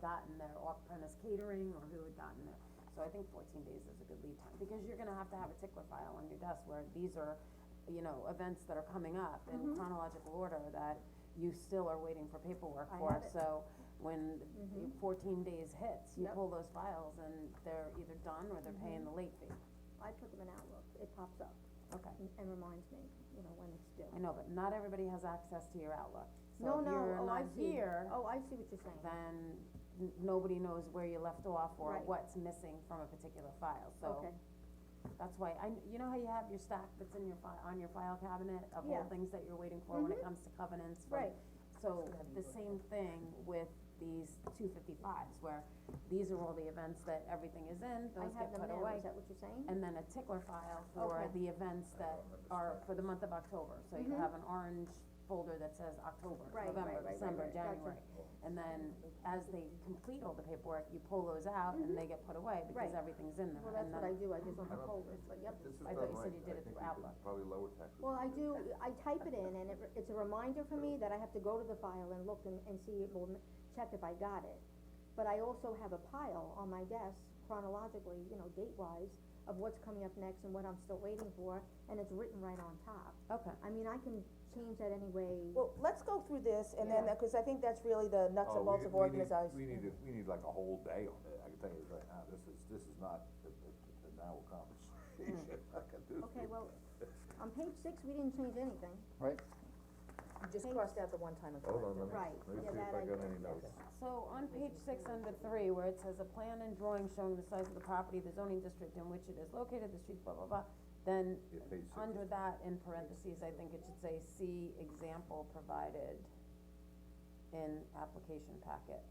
gotten their off-premise catering, or who had gotten their, so I think fourteen days is a good lead time, because you're gonna have to have a tickler file on your desk where these are, you know, events that are coming up in Mm-hmm. chronological order that you still are waiting for paperwork I for, have it. Mm-hmm. so when the fourteen days hits, you Yep. Mm-hmm. pull those files and they're either done or they're paying the late fee, I put them in Outlook, it pops up okay. and and reminds me, you know, when it's due. I know, but not everybody has access to your Outlook, so No, if no, you're oh, I not see. here, Oh, I see what you're saying, then n- nobody knows where you left off or Right. what's missing from a particular file, so okay, that's why, I, you know how you have your stack that's in your fi- on your file cabinet of all Yeah. Mm-hmm. things that you're waiting for when it comes to covenants from right, So, the same thing with these two fifty-fives, where these are all the events that everything is in, I those have get them put now, away. is that what you're saying? And then a tickler file for Okay. the events that are for the month of October, so you Mhm. have an orange folder that says October, Right, right, November, right, right, December, right, gotcha. January. And then, as they complete all the paperwork, you pull those out and they get put away because Mm-hmm. Right. everything's in Well, there, that's and what I then, do, I just don't I don't- folders, but yep. This is I done thought right, you said you did I it think through we could Outlook. probably lower taxes. Well, I do, I type it in and it, re- it's a reminder for me that I have to go to the file and look and, and see, well, m- check if I got it. But I also have a pile on my desk chronologically, you know, date-wise, of what's coming up next and what I'm still waiting for, and it's written right on top. okay. I mean, I can change that any way. Well, let's go through this and then, Yeah. cause I think that's really the nuts Oh, and we- bolts of we need- organization. We need, to- we need like a whole day on that, I can tell you right now, this is, this is not a, a, a- an hour conversation, I can do Okay, it. well, on page six, we didn't change anything. Right. You Just crossed out the one time and Hold on, let corrected. me, Right, let me yeah, see if that I I got can- any notes. So on page six under three, where it says a plan and drawing showing the size of the property, the zoning district in which it is located, the streets, blah, blah, blah, then Yeah, page six. under that, in parentheses, I think it should say, see example provided in application packet.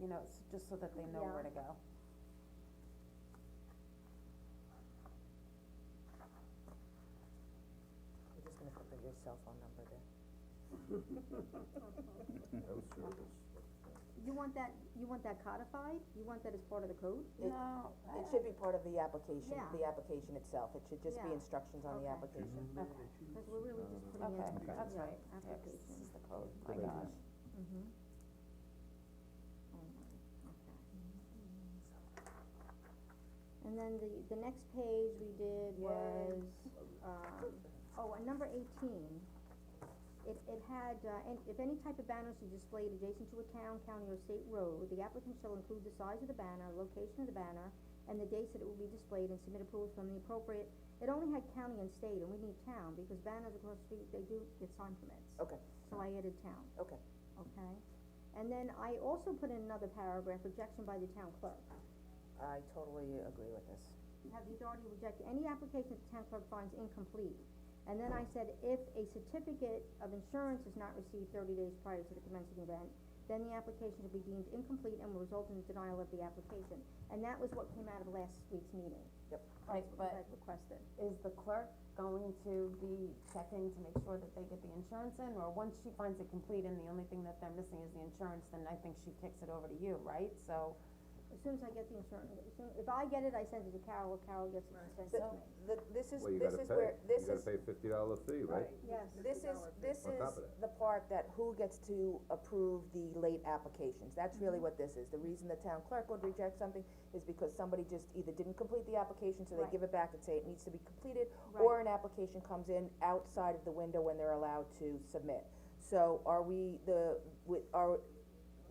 You know, s just so that they know where to go. You're just gonna put the- your cell phone number there. No service. You want that, you want that codified? You want that as part of the code? It- No, It should be part of the application, Yeah. the application itself, it should just be Yeah. instructions on the Okay. application. Mm-hmm. Cause we're really just putting in. okay, that's yeah, right, yeah, 'cause Application. this is the code, my Thank you. gosh. Mm-hmm. Oh And then the, the next page we did was, um, oh, and number eighteen. It, it had, uh, and if any type of banner is displayed adjacent to a town, county, or state road, the applicant shall include the size of the banner, location of the banner, and the dates that it will be displayed and submit approval from the appropriate, it only had county and state, and we need town, because banners across the street, they do get sign permits. Okay. So I added town Okay, okay? And then I also put in another paragraph, rejection by the town clerk. I totally agree with this. Have the authority to reject any application the town clerk finds incomplete. And then I said, if a certificate of insurance is not received thirty days prior to the commencing event, then the application will be deemed incomplete and will result in the denial of the application. And that was what came out of last week's meeting. Yep. Right, but That requested. is the clerk going to be checking to make sure that they get the insurance in, or once she finds it complete and the only thing that they're missing is the insurance, then I think she kicks it over to you, right? So, As soon as I get the insurance, as soon, if I get it, I send it to Carol, if Carol gets it, she sends it to me. The, this is, Well, you this gotta is pay, where, you this gotta is, pay fifty dollar fee, right? Yes. this is, this On top is of that. the part that who gets to approve the late applications, that's really what this is. The reason the town clerk would reject something is because somebody just either didn't complete the application, so they Right. give it back and say it needs to be completed, Right. or an application comes in outside of the window when they're allowed to submit. So are we the, with, are,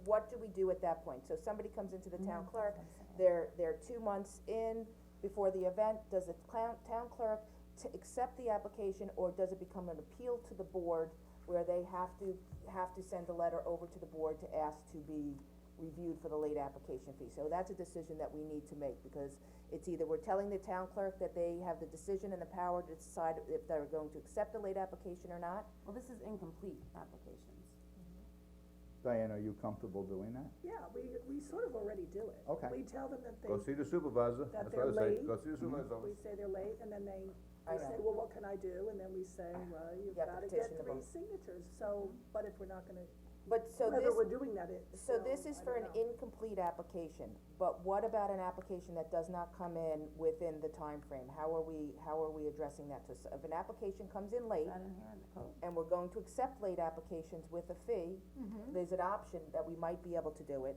what do we do at that point? So somebody comes into the town clerk, they're, they're two months in before the event, does the clown, town clerk t- accept the application, or does it become an appeal to the board where they have to, have to send a letter over to the board to ask to be reviewed for the late application fee? So that's a decision that we need to make, because it's either we're telling the town clerk that they have the decision and the power to decide if they're going to accept the late application or not, well, this is incomplete applications. Diane, are you comfortable doing that? Yeah, we, we sort of already do it. Okay. We tell them that they, Go see the supervisor, That that's what I they're say, late. go see the supervisor's we office. say they're late, and then they, I we say, know. well, what can I do? And then we say, well, you've You have to gotta get petition the three vote. signatures, so, but if we're not gonna, but so this. whether we're doing that, it, So this is for an incomplete application, but what about an application that does not come in within the time frame? How are we, how are we addressing that? So s- if an application comes in late Is that in here in the code? and we're going to accept late applications with a fee, there's an option that we might be able to do it.